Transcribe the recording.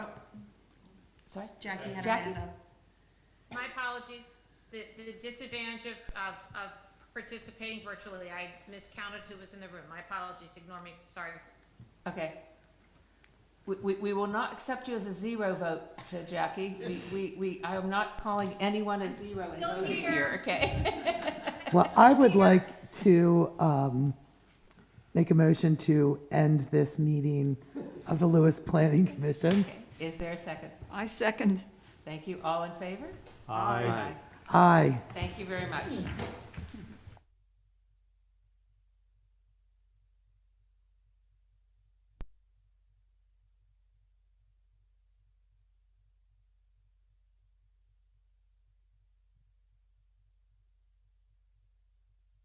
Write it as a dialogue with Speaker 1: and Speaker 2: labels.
Speaker 1: Sorry?
Speaker 2: Jackie had her
Speaker 1: Jackie?
Speaker 2: hand up.
Speaker 3: My apologies. The, the disadvantage of, of, of participating virtually, I miscounted who was in the room. My apologies, ignore me, sorry.
Speaker 1: Okay. We, we, we will not accept you as a zero vote to Jackie. We, we, we, I am not calling anyone a zero in
Speaker 3: Still
Speaker 1: voting
Speaker 3: here.
Speaker 1: here, okay?
Speaker 4: Well, I would like to um, make a motion to end this meeting of the Lewis Planning Commission.
Speaker 1: Is there a second?
Speaker 5: I second.
Speaker 1: Thank you. All in favor?
Speaker 6: Aye.
Speaker 4: Aye.
Speaker 1: Thank you very much.